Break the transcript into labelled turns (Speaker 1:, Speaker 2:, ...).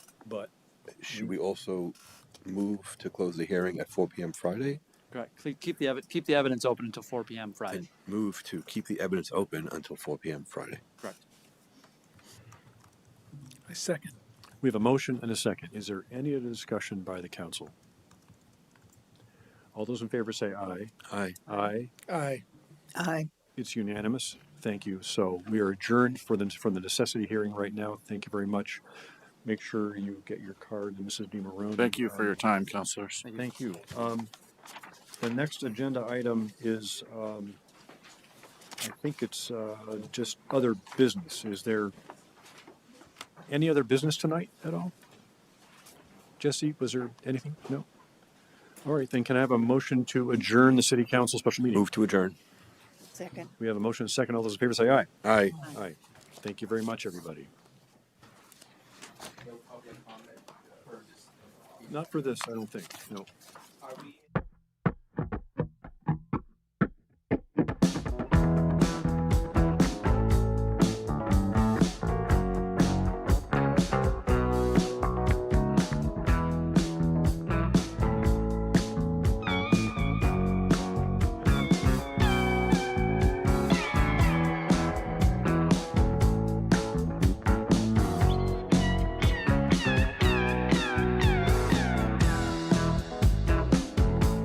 Speaker 1: but
Speaker 2: Should we also move to close the hearing at four PM Friday?
Speaker 3: Correct. Keep- Keep the, evi- keep the evidence open until four PM
Speaker 2: And
Speaker 3: Friday.
Speaker 2: move to keep the evidence open until four PM Friday.
Speaker 3: Correct.
Speaker 1: I second. We have a motion and a second. Is there any other discussion by the council? All those in favor say aye.
Speaker 2: Aye.
Speaker 1: Aye.
Speaker 4: Aye.
Speaker 5: Aye.
Speaker 1: It's unanimous. Thank you. So we are adjourned for the, for the necessity hearing right now. Thank you very much. Make sure you get your card, Mrs. DiMarone.
Speaker 6: Thank you for your time, counselors.
Speaker 1: Thank you. Um, the next agenda item is, um, I think it's, uh, just other business. Is there any other business tonight at all? Jesse, was there anything? No? All right, then can I have a motion to adjourn the city council special meeting?
Speaker 2: Move to adjourn.
Speaker 5: Second.
Speaker 1: We have a motion and a second. All those in favor say aye.
Speaker 2: Aye.
Speaker 1: Aye. Thank you very much, everybody. Not for this, I don't think, no.